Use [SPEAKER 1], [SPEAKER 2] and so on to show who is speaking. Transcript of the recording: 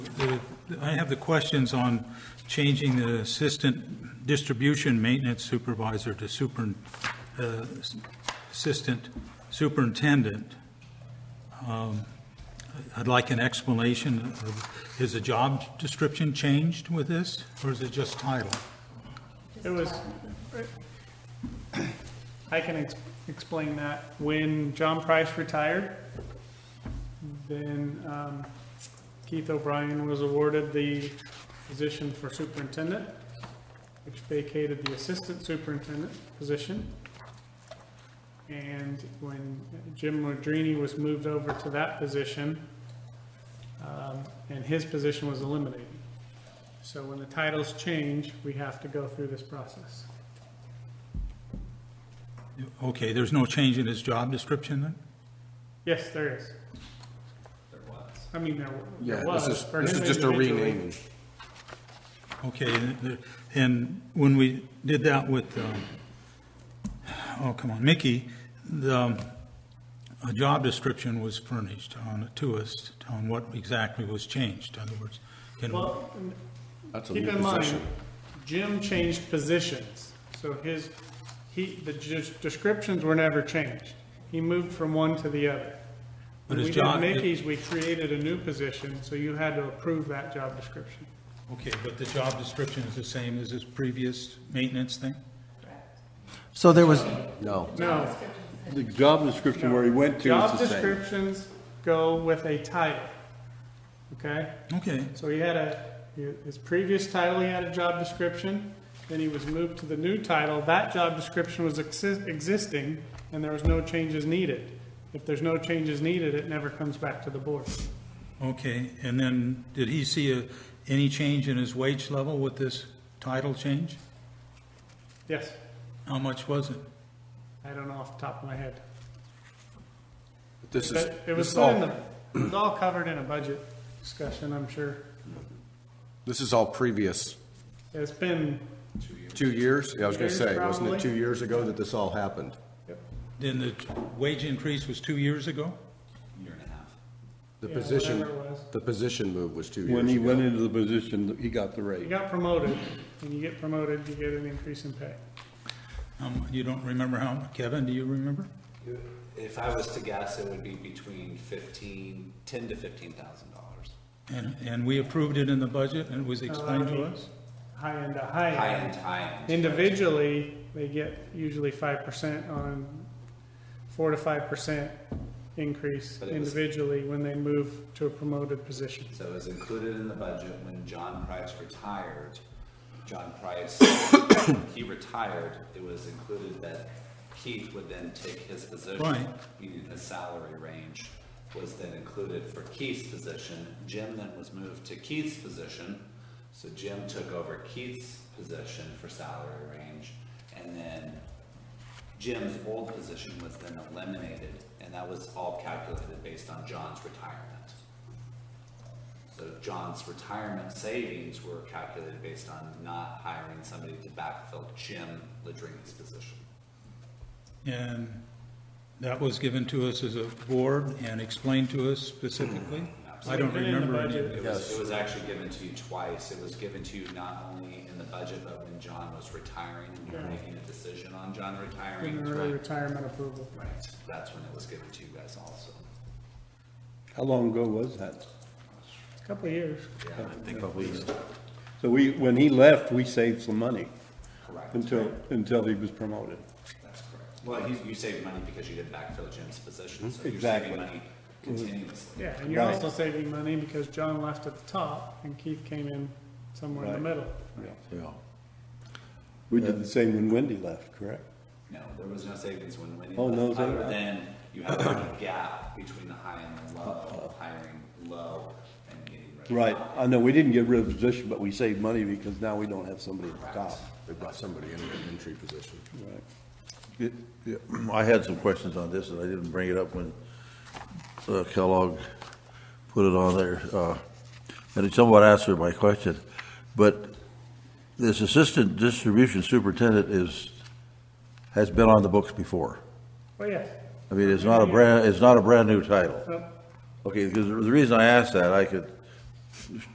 [SPEAKER 1] I have the questions on changing the assistant distribution maintenance supervisor to super, uh, assistant superintendent. Um, I'd like an explanation. of- Is the job description changed with this, or is it just title?
[SPEAKER 2] It was, I can ex- explain that. When John Price retired, then um, Keith O'Brien was awarded the position for superintendent, which vacated the assistant superintendent position. And when Jim Modrini was moved over to that position, um, and his position was eliminated. So when the titles change, we have to go through this process.
[SPEAKER 1] Okay, there's no change in his job description then?
[SPEAKER 2] Yes, there is. There was. I mean, there
[SPEAKER 3] Yeah,
[SPEAKER 2] there was.
[SPEAKER 3] this is,
[SPEAKER 2] for
[SPEAKER 3] this is
[SPEAKER 2] him
[SPEAKER 3] just a
[SPEAKER 2] individually.
[SPEAKER 3] renaming.
[SPEAKER 1] Okay, and the- and when we did that with, um, oh, come on, Mickey, the, um, a job description was furnished on, to us on what exactly was changed, in other words. can we-
[SPEAKER 2] Well, n-
[SPEAKER 3] That's a
[SPEAKER 2] keep
[SPEAKER 3] new
[SPEAKER 2] in mind,
[SPEAKER 3] position.
[SPEAKER 2] Jim changed positions, so his, he, the j- descriptions were never changed. He moved from one to the other.
[SPEAKER 1] But
[SPEAKER 2] When
[SPEAKER 1] his
[SPEAKER 2] we did
[SPEAKER 1] job-
[SPEAKER 2] Mickey's, we created a new position, so you had to approve that job description.
[SPEAKER 1] Okay, but the job description is the same as his previous maintenance thing?
[SPEAKER 4] So there was,
[SPEAKER 3] No.
[SPEAKER 2] No,
[SPEAKER 5] The job description where he went to
[SPEAKER 2] job
[SPEAKER 5] is the same.
[SPEAKER 2] descriptions go with a title, okay?
[SPEAKER 1] Okay,
[SPEAKER 2] So he had a, his previous title, he had a job description, then he was moved to the new title. That job description was exi- existing, and there was no changes needed. If there's no changes needed, it never comes back to the board.
[SPEAKER 1] okay, and then did he see a- any change in his wage level with this title change?
[SPEAKER 2] Yes,
[SPEAKER 1] How much was it?
[SPEAKER 2] I don't know off the top of my head.
[SPEAKER 3] This is,
[SPEAKER 2] But it
[SPEAKER 3] this
[SPEAKER 2] was
[SPEAKER 3] is
[SPEAKER 2] put in the,
[SPEAKER 3] all,
[SPEAKER 2] it was all covered in a budget discussion, I'm sure.
[SPEAKER 3] this is all previous.
[SPEAKER 2] It's been,
[SPEAKER 3] Two years? Yeah, I was gonna
[SPEAKER 2] Years,
[SPEAKER 3] say, wasn't
[SPEAKER 2] probably.
[SPEAKER 3] it two years ago that this all happened?
[SPEAKER 1] Then the wage increase was two years ago?
[SPEAKER 3] The
[SPEAKER 2] Yeah,
[SPEAKER 3] position,
[SPEAKER 2] whatever it was.
[SPEAKER 3] the position move was two
[SPEAKER 5] When he
[SPEAKER 3] years ago.
[SPEAKER 5] went into the position, he got the
[SPEAKER 2] you
[SPEAKER 5] raise.
[SPEAKER 2] got promoted, and you get promoted, you get an increase in pay.
[SPEAKER 1] Um, You don't remember how, Kevin, do you remember?
[SPEAKER 6] If I was to guess, it would be between fifteen, ten to fifteen thousand dollars.
[SPEAKER 1] And, and we approved it in the budget, and it was explained to
[SPEAKER 2] Uh, mean-
[SPEAKER 1] us?
[SPEAKER 2] High end to high end.
[SPEAKER 6] High end, high end.
[SPEAKER 2] Individually, they get usually five percent on, four to five percent increase
[SPEAKER 6] But it was-
[SPEAKER 2] individually when they move to a promoted position.
[SPEAKER 6] So it was included in the budget when John Price retired. John Price, he retired, it was included that Keith would then take his position.
[SPEAKER 1] Right.
[SPEAKER 6] Meaning his salary range was then included for Keith's position. Jim then was moved to Keith's position. So Jim took over Keith's position for salary range. And then Jim's old position was then eliminated, and that was all calculated based on John's retirement. So John's retirement savings were calculated based on not hiring somebody to backfill Jim Ladrini's position.
[SPEAKER 1] And that was given to us as a board and explained to us specifically? I don't
[SPEAKER 2] Been in the
[SPEAKER 1] remember any of
[SPEAKER 2] budget.
[SPEAKER 1] it.
[SPEAKER 6] It was, it was actually given to you twice. It was given to you not only in the budget, but when John was retiring and you were making a decision on John retiring.
[SPEAKER 2] In
[SPEAKER 6] It's
[SPEAKER 2] early
[SPEAKER 6] like-
[SPEAKER 2] retirement approval.
[SPEAKER 6] Right, that's when it was given to you guys also.
[SPEAKER 5] How long ago was that?
[SPEAKER 2] A Couple of years.
[SPEAKER 6] Yeah,
[SPEAKER 5] So we, when he left, we saved some money
[SPEAKER 6] correct.
[SPEAKER 5] until, until he was promoted.
[SPEAKER 6] That's correct. Well, you, you saved money because you didn't backfill Jim's position, so you're
[SPEAKER 5] Exactly.
[SPEAKER 6] saving money continuously.
[SPEAKER 2] Yeah, and you're
[SPEAKER 5] Right.
[SPEAKER 2] also saving money because John left at the top and Keith came in somewhere in the
[SPEAKER 5] Right.
[SPEAKER 2] middle.
[SPEAKER 5] Yeah. We did the same when Wendy left, correct?
[SPEAKER 6] No, there was no savings when Wendy
[SPEAKER 5] Oh, no
[SPEAKER 6] left, other
[SPEAKER 5] savings.
[SPEAKER 6] than you had a gap between the high and the low, hiring low and getting rid of.
[SPEAKER 5] Right, I know, we didn't get rid of the position, but we saved money because now we don't have somebody at the top.
[SPEAKER 3] They brought somebody in an entry position.
[SPEAKER 5] Right.
[SPEAKER 7] It- yeah, I had some questions on this, and I didn't bring it up when uh, Kellogg put it on there. uh, And it somewhat answered my question. But this assistant distribution superintendent is, has been on the books before.
[SPEAKER 2] Well, yes,
[SPEAKER 7] I mean, it's not a
[SPEAKER 2] uh,
[SPEAKER 7] brand, it's not a brand-new title.
[SPEAKER 2] Nope.
[SPEAKER 7] Okay, because the reason I asked that, I could